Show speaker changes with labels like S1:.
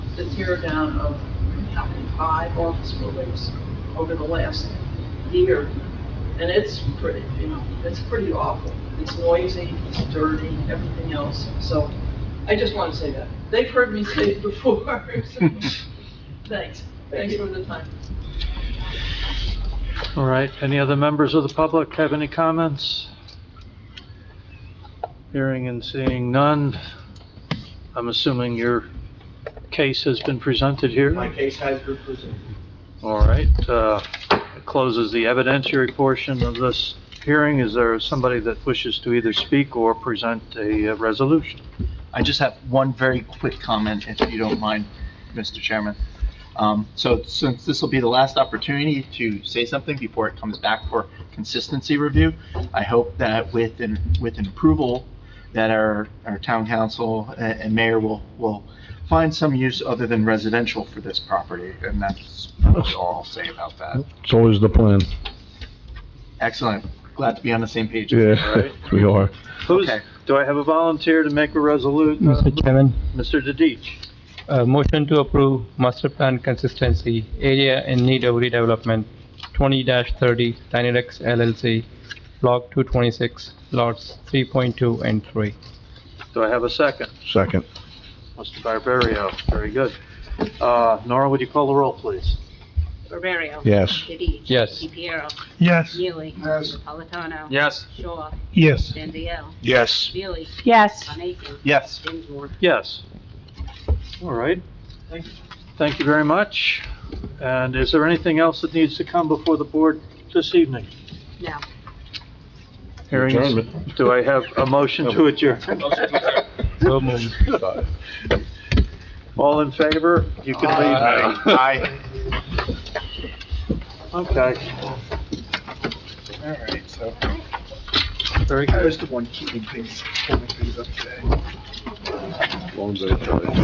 S1: the tear down of having five office buildings over the last year. And it's pretty, you know, it's pretty awful. It's noisy, it's dirty, everything else. So I just want to say that. They've heard me say it before. so Thanks. Thanks for the time.
S2: All right, any other members of the public have any comments? Hearing and seeing none, I'm assuming your case has been presented here?
S3: My case has been presented.
S2: All right, uh, it closes the evidentiary portion of this hearing. Is there somebody that wishes to either speak or present a uh, resolution?
S4: I just have one very quick comment, if you don't mind, Mr. Chairman. Um, So since this will be the last opportunity to say something before it comes back for consistency review, I hope that with, an with an approval, that our, our town council a- and mayor will, will find some use other than residential for this property, and that's really all I'll say about that.
S5: It's always the plan.
S4: Excellent. Glad to be on the same page.
S5: Yeah, we are.
S2: Who's,
S4: Okay.
S2: do I have a volunteer to make a resolu, uh,
S6: Mr. Chairman,
S2: Mr. Dedich?
S6: uh, motion to approve master plan consistency, area in need of redevelopment, twenty thirty, Dynadex LLC, block two twenty-six, lots three point two and three.
S2: Do I have a second?
S5: Second.
S2: Mr. Barberio, very good. Uh, Nora, would you call the roll, please?
S7: Barberio.
S5: Yes.
S7: Didich.
S6: Yes.
S7: DePiero.
S8: Yes.
S7: Neely.
S3: Yes.
S7: Napolitano.
S2: Yes.
S7: Shaw.
S8: Yes.
S7: Stanzio.
S5: Yes.
S7: Neely.
S9: Yes.
S7: Von Aiken.
S4: Yes.
S7: Dinsmore.
S2: Yes. All right.
S3: Thank you.
S2: Thank you very much. And is there anything else that needs to come before the board this evening?
S7: No.
S2: Hearing-
S5: Adjournment.
S2: Do I have a motion to adjourn?
S6: So moved.
S2: All in favor? You can leave.
S4: Aye. Aye.
S2: Okay,
S3: All right, so.
S2: very
S3: I
S2: good.
S3: was the one keeping things, holding things up today.
S5: Long day, Charlie.